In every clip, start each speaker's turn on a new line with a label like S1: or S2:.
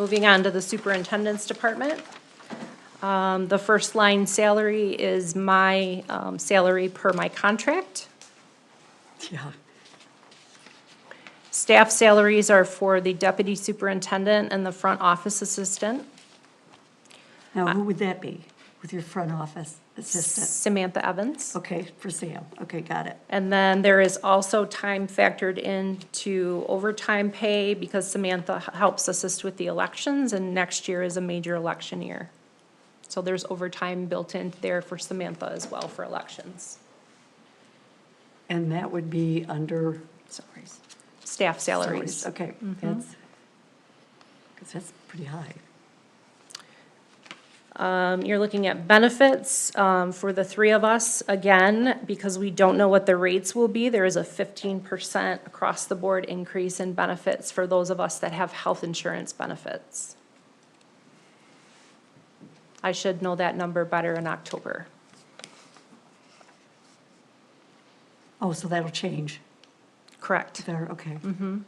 S1: Moving on to the superintendent's department. Um, The first line salary is my um, salary per my contract.
S2: Yeah.
S1: Staff salaries are for the deputy superintendent and the front office assistant.
S2: Now, who would that be with your front office assistant?
S1: Samantha Evans.
S2: Okay, for Sam. Okay, got it.
S1: And then there is also time factored into overtime pay because Samantha h- helps assist with the elections and next year is a major election year. So there's overtime built in there for Samantha as well for elections.
S2: And that would be under?
S1: Salaries. Staff salaries.
S2: Okay, that's, because that's pretty high.
S1: Um, you're looking at benefits, um, for the three of us, again, because we don't know what the rates will be, there is a fifteen percent across the board increase in benefits for those of us that have health insurance benefits. I should know that number better in October.
S2: Oh, so that'll change.
S1: Correct.
S2: There, okay.
S1: Mm-hmm.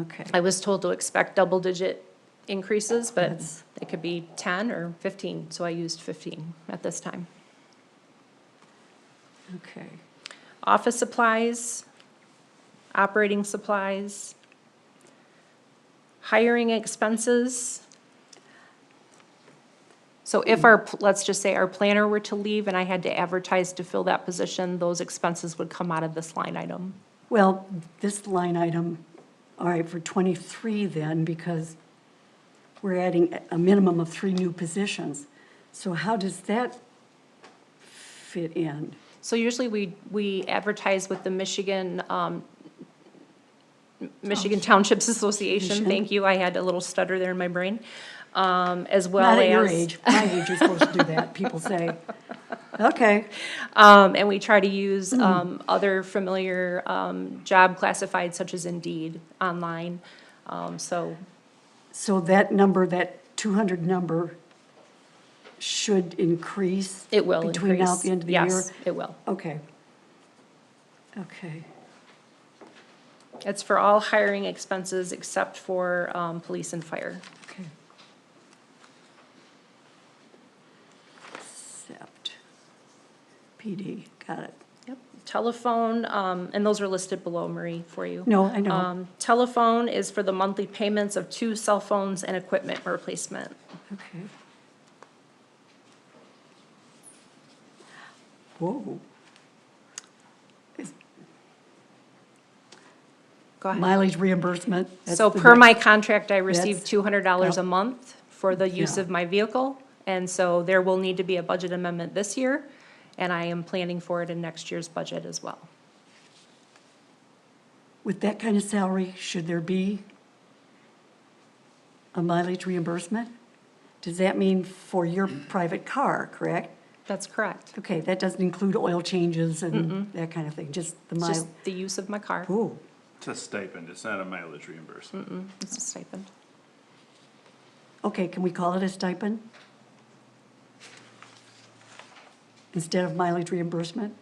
S2: Okay,
S1: I was told to expect double-digit increases, but
S2: That's-
S1: it could be ten or fifteen, so I used fifteen at this time.
S2: okay.
S1: office supplies, operating supplies, hiring expenses. So if our, let's just say our planner were to leave and I had to advertise to fill that position, those expenses would come out of this line item.
S2: Well, this line item, all right, for 23 then, because we're adding a- a minimum of three new positions. So how does that fit in?
S1: So usually we, we advertise with the Michigan, um, Michigan Townships Association,
S2: Association.
S1: thank you, I had a little stutter there in my brain, um, as well as.
S2: Not at your age. My age, you're supposed to do that, people say. Okay,
S1: Um, and we try to use,
S2: Mm-hmm.
S1: um, other familiar, um, job classifieds such as Indeed online. Um, so
S2: so that number, that 200 number should increase?
S1: it will increase.
S2: Between now and the end of the year?
S1: Yes, it will.
S2: Okay. Okay,
S1: It's for all hiring expenses except for, um, police and fire.
S2: okay. Except PD, got it.
S1: Yep. Telephone, um, and those are listed below, Marie, for you.
S2: No, I know,
S1: Um, telephone is for the monthly payments of two cell phones and equipment replacement.
S2: okay. Whoa,
S1: Go ahead.
S2: mileage reimbursement. that's
S1: So
S2: the
S1: per
S2: next-
S1: my contract, I receive
S2: That's-
S1: two hundred dollars a
S2: yeah.
S1: month for the use
S2: Yeah.
S1: of my vehicle. And so there will need to be a budget amendment this year, and I am planning for it in next year's budget as well.
S2: With that kind of salary, should there be a mileage reimbursement? Does that mean for your private car, correct?
S1: That's correct.
S2: Okay, that doesn't include oil changes and that kind of thing, just the
S1: It's
S2: mile.
S1: just the use of my car.
S2: Oh,
S3: It's a stipend, it's not a mileage reimbursement.
S1: It's a stipend.
S2: okay, can we call it a stipend? Instead of mileage reimbursement?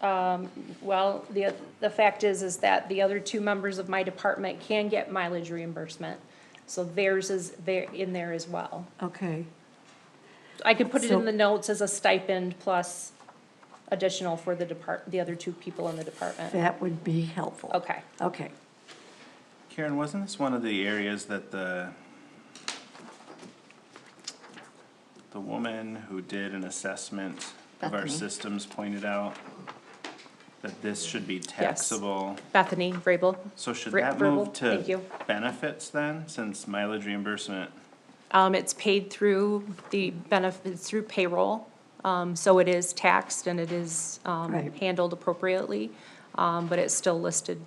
S1: Well, the, the fact is, is that the other two members of my department can get mileage reimbursement. So theirs is there, in there as well.
S2: Okay,
S1: I could put it in
S2: So-
S1: the notes as a stipend plus additional for the depart, the other two people in the department.
S2: that would be helpful.
S1: Okay.
S2: Okay,
S3: Karen, wasn't this one of the areas that the the woman who did an assessment of our
S4: Bethany.
S3: systems pointed out that this should be taxable?
S1: Bethany Vrabel.
S3: So should
S1: Ver-
S3: that
S1: verbal?
S3: move
S1: Thank
S3: to
S1: you.
S3: benefits then, since mileage reimbursement?
S1: Um, it's paid through the benefits, through payroll, um, so it is taxed and it is, um,
S2: Right.
S1: handled appropriately, um, but it's still listed,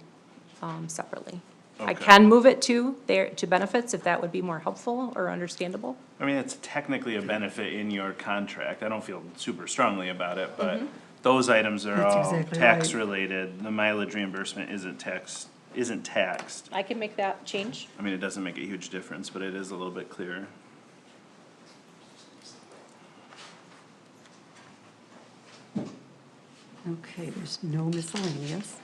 S1: um, separately. I
S3: Okay.
S1: can move it to there, to benefits if that would be more helpful or understandable.
S3: I mean, it's technically a benefit in your contract. I don't feel super strongly about it, but those items are
S2: Mm-hmm. That's
S3: all
S2: exactly
S3: tax
S2: right.
S3: related. The mileage reimbursement isn't taxed, isn't taxed.
S1: I can make that change.
S3: I mean, it doesn't make a huge difference, but it is a little bit clearer.
S2: okay, there's no miscellaneous.